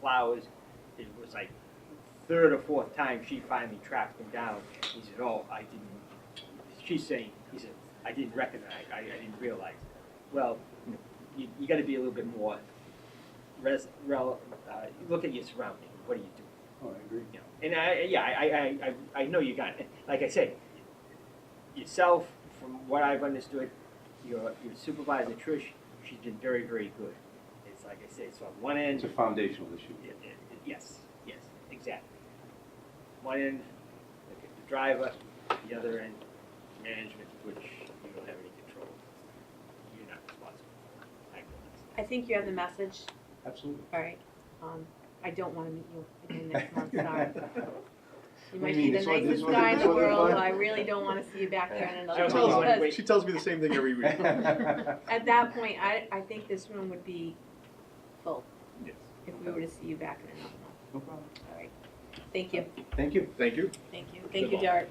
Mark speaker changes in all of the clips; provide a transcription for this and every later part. Speaker 1: flowers. It was like third or fourth time she finally tracked him down. He said, "Oh, I didn't." She's saying, "He said I didn't recognize. I, I didn't realize." Well, you, you got to be a little bit more. Res, rel, uh, look at your surroundings. What are you doing?
Speaker 2: Oh, I agree.
Speaker 1: You know, and I, yeah, I, I, I, I know you got it. Like I said, yourself, from what I've understood, your, your supervisor Trish, she's been very, very good. It's like I said, so on one end,
Speaker 2: It's a foundational issue.
Speaker 1: y- y- yes, yes, exactly. One end, like the driver, the other end, management, which you don't have any control. You're not responsible. I realize.
Speaker 3: I think you have the message,
Speaker 2: Absolutely.
Speaker 3: all right. Um, I don't wanna meet you again next month, sorry. You
Speaker 2: What
Speaker 3: might
Speaker 2: do you mean?
Speaker 3: be the
Speaker 2: This wasn't- this
Speaker 3: nicest
Speaker 2: wasn't-
Speaker 3: guy in
Speaker 2: this
Speaker 3: the
Speaker 2: wasn't
Speaker 3: world,
Speaker 2: fun?
Speaker 3: but I really don't wanna see you back there in
Speaker 1: That
Speaker 3: another
Speaker 1: was
Speaker 3: month,
Speaker 1: one
Speaker 3: because
Speaker 1: way.
Speaker 4: She tells me the same thing every week.
Speaker 3: at that point, I, I think this room would be full
Speaker 1: Yes.
Speaker 3: if we were to see you back in another month,
Speaker 2: No problem.
Speaker 3: all right. Thank you,
Speaker 2: Thank you.
Speaker 4: Thank you.
Speaker 3: thank you, thank you,
Speaker 4: Good luck.
Speaker 3: Derek.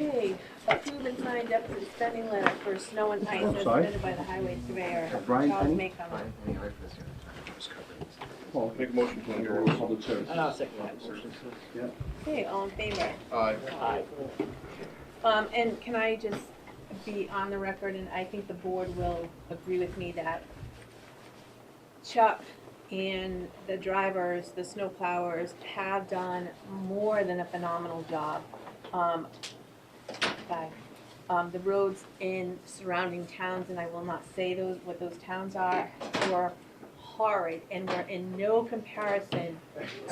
Speaker 3: Okay, approve and sign deficit spending letter for snow and ice
Speaker 2: I'm
Speaker 3: as
Speaker 2: sorry?
Speaker 3: submitted by the highway surveyor.
Speaker 2: Brian
Speaker 3: Charles
Speaker 2: Penny?
Speaker 3: Maycomer.
Speaker 2: Well,
Speaker 4: Make a motion to
Speaker 2: under
Speaker 4: adjourn.
Speaker 2: public service.
Speaker 1: And I'll second that motion.
Speaker 3: Okay, all in favor?
Speaker 4: Aye.
Speaker 1: Aye.
Speaker 4: Uh,
Speaker 3: Um, and can I just be on the record, and I think the board will agree with me that Chuck and the drivers, the snowplowers, have done more than a phenomenal job. Um, by, um, the roads in surrounding towns, and I will not say those, what those towns are, were horrid and were in no comparison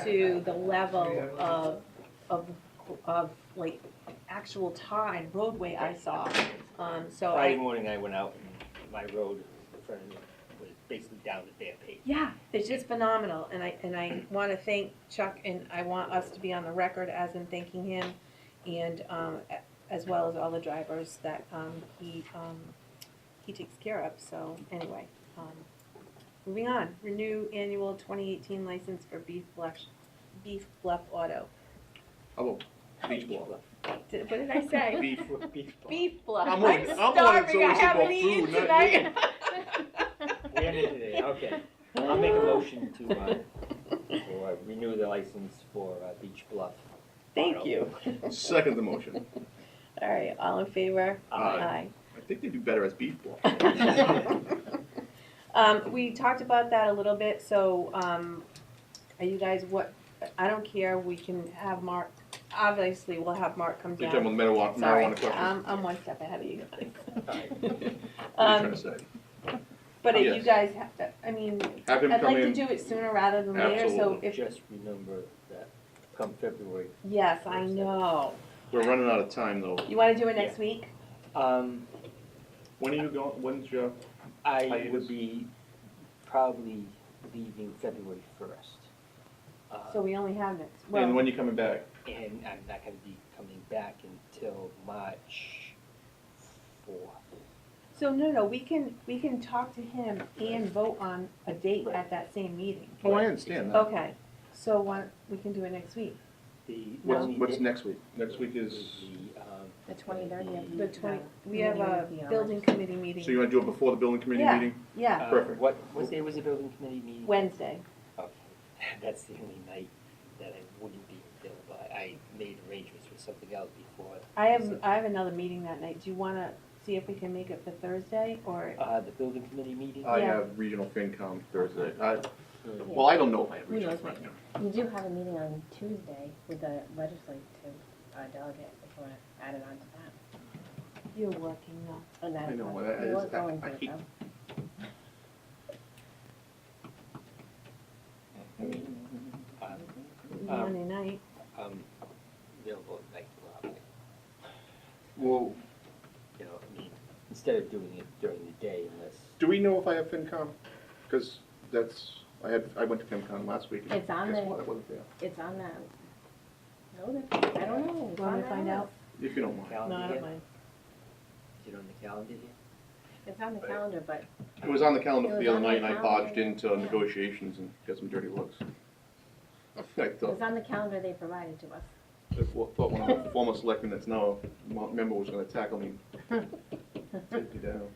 Speaker 3: to the level of, of, of like actual time, roadway I saw. Um, so
Speaker 1: Friday
Speaker 3: I,
Speaker 1: morning, I went out and my road in front of me was basically down to bare pavement.
Speaker 3: yeah, it's just phenomenal, and I, and I wanna thank Chuck, and I want us to be on the record as in thanking him, and, um, a- as well as all the drivers that, um, he, um, he takes care of, so, anyway. um, Moving on, renew annual twenty eighteen license for Beef Bluff, Beef Bluff Auto.
Speaker 4: How about beach ball?
Speaker 3: Did, what did I say?
Speaker 1: Beef, beef ball.
Speaker 3: Beef Bluff, I'm
Speaker 4: I'm on- I'm on
Speaker 3: starving, I
Speaker 4: someone's about
Speaker 3: haven't eaten
Speaker 4: food, not
Speaker 3: tonight.
Speaker 1: We ended today, okay. I'll make a motion to, uh, for, uh, renew the license for, uh, Beach Bluff.
Speaker 3: Thank you,
Speaker 4: Second the motion.
Speaker 3: all right, all in favor?
Speaker 4: Aye. I think they do better as beach ball.
Speaker 3: Um, we talked about that a little bit, so, um, are you guys, what, I don't care, we can have Mark, obviously, we'll have Mark come
Speaker 4: You're talking
Speaker 3: down.
Speaker 4: about the marijuana,
Speaker 3: Sorry,
Speaker 4: marijuana question.
Speaker 3: I'm, I'm one step ahead of you guys.
Speaker 4: What are you trying
Speaker 3: Um,
Speaker 4: to say?
Speaker 3: but if
Speaker 4: Yes.
Speaker 3: you guys have to, I mean,
Speaker 4: Have
Speaker 3: Um,
Speaker 4: him
Speaker 3: I'd
Speaker 4: come
Speaker 3: like to
Speaker 4: in.
Speaker 3: do it sooner rather than later, so
Speaker 4: Absolutely.
Speaker 3: if,
Speaker 1: Just remember that come February,
Speaker 3: yes, I know.
Speaker 4: We're running out of time though.
Speaker 3: You wanna do it next week?
Speaker 1: um,
Speaker 4: When are you going, when's your,
Speaker 1: I would be probably leaving February first.
Speaker 3: So we only have next,
Speaker 4: and
Speaker 3: well,
Speaker 4: when you coming back?
Speaker 1: And I'm not gonna be coming back until March fourth.
Speaker 3: so no, no, we can, we can talk to him and vote on a date
Speaker 1: Right.
Speaker 3: at that same meeting.
Speaker 4: Oh, I understand that.
Speaker 3: Okay, so one, we can do it next week.
Speaker 1: The
Speaker 4: What's,
Speaker 3: Um,
Speaker 1: only
Speaker 4: what's
Speaker 1: di-
Speaker 4: next week? Next week is,
Speaker 1: the, um,
Speaker 5: The twenty-third, you have.
Speaker 3: The twenty, we have a building committee
Speaker 4: so
Speaker 3: meeting,
Speaker 4: you wanna do it before the building committee
Speaker 3: Yeah.
Speaker 4: meeting?
Speaker 3: yeah,
Speaker 1: uh,
Speaker 4: Perfect.
Speaker 1: What, what day was the building committee meeting?
Speaker 3: Wednesday.
Speaker 1: Okay, that's the only night that I wouldn't be available. I- I made arrangements for something else before.
Speaker 3: I have, I have another meeting that night, do you wanna see if we can make it for Thursday, or,
Speaker 1: Uh, the building committee meeting?
Speaker 4: I
Speaker 3: Yeah.
Speaker 4: have regional FinCom Thursday. I, well, I don't know if I have
Speaker 3: Who
Speaker 4: regional
Speaker 3: knows what-
Speaker 4: FinCom.
Speaker 5: You do have a meeting on Tuesday with the legislative uh, delegate, if you wanna add it on to that.
Speaker 3: you're working now?
Speaker 5: And that
Speaker 4: I
Speaker 5: is
Speaker 4: know,
Speaker 5: on-
Speaker 4: well, that
Speaker 5: it
Speaker 4: is-
Speaker 5: was
Speaker 4: I-
Speaker 5: going
Speaker 4: I
Speaker 5: to,
Speaker 4: hate-
Speaker 5: though.
Speaker 1: I mean, um, um,
Speaker 3: Monday night,
Speaker 1: um, available at night, well, like,
Speaker 4: Well,
Speaker 1: you know, I mean, instead of doing it during the day unless,
Speaker 4: do we know if I have FinCom? Because that's, I had, I went to FinCom last week. and
Speaker 5: It's on
Speaker 4: guess
Speaker 5: there.
Speaker 4: what? It wasn't there.
Speaker 5: It's on that. notice. I don't know. It's
Speaker 3: wanna
Speaker 5: on that
Speaker 3: find out?
Speaker 5: list.
Speaker 4: If you don't mind.
Speaker 3: no,
Speaker 1: calendar
Speaker 3: I
Speaker 1: yet?
Speaker 3: don't mind.
Speaker 1: Is it on the calendar yet?
Speaker 5: It's on the calendar, but
Speaker 4: It was on the calendar for
Speaker 5: It
Speaker 4: the other
Speaker 5: was on the
Speaker 4: night, and I
Speaker 5: calendar.
Speaker 4: dodged into negotiations and got some dirty looks. I thought,
Speaker 5: it's on the calendar they provided to us.
Speaker 4: I thought one of the former selectmen that's now a member was gonna tackle me. Take me down.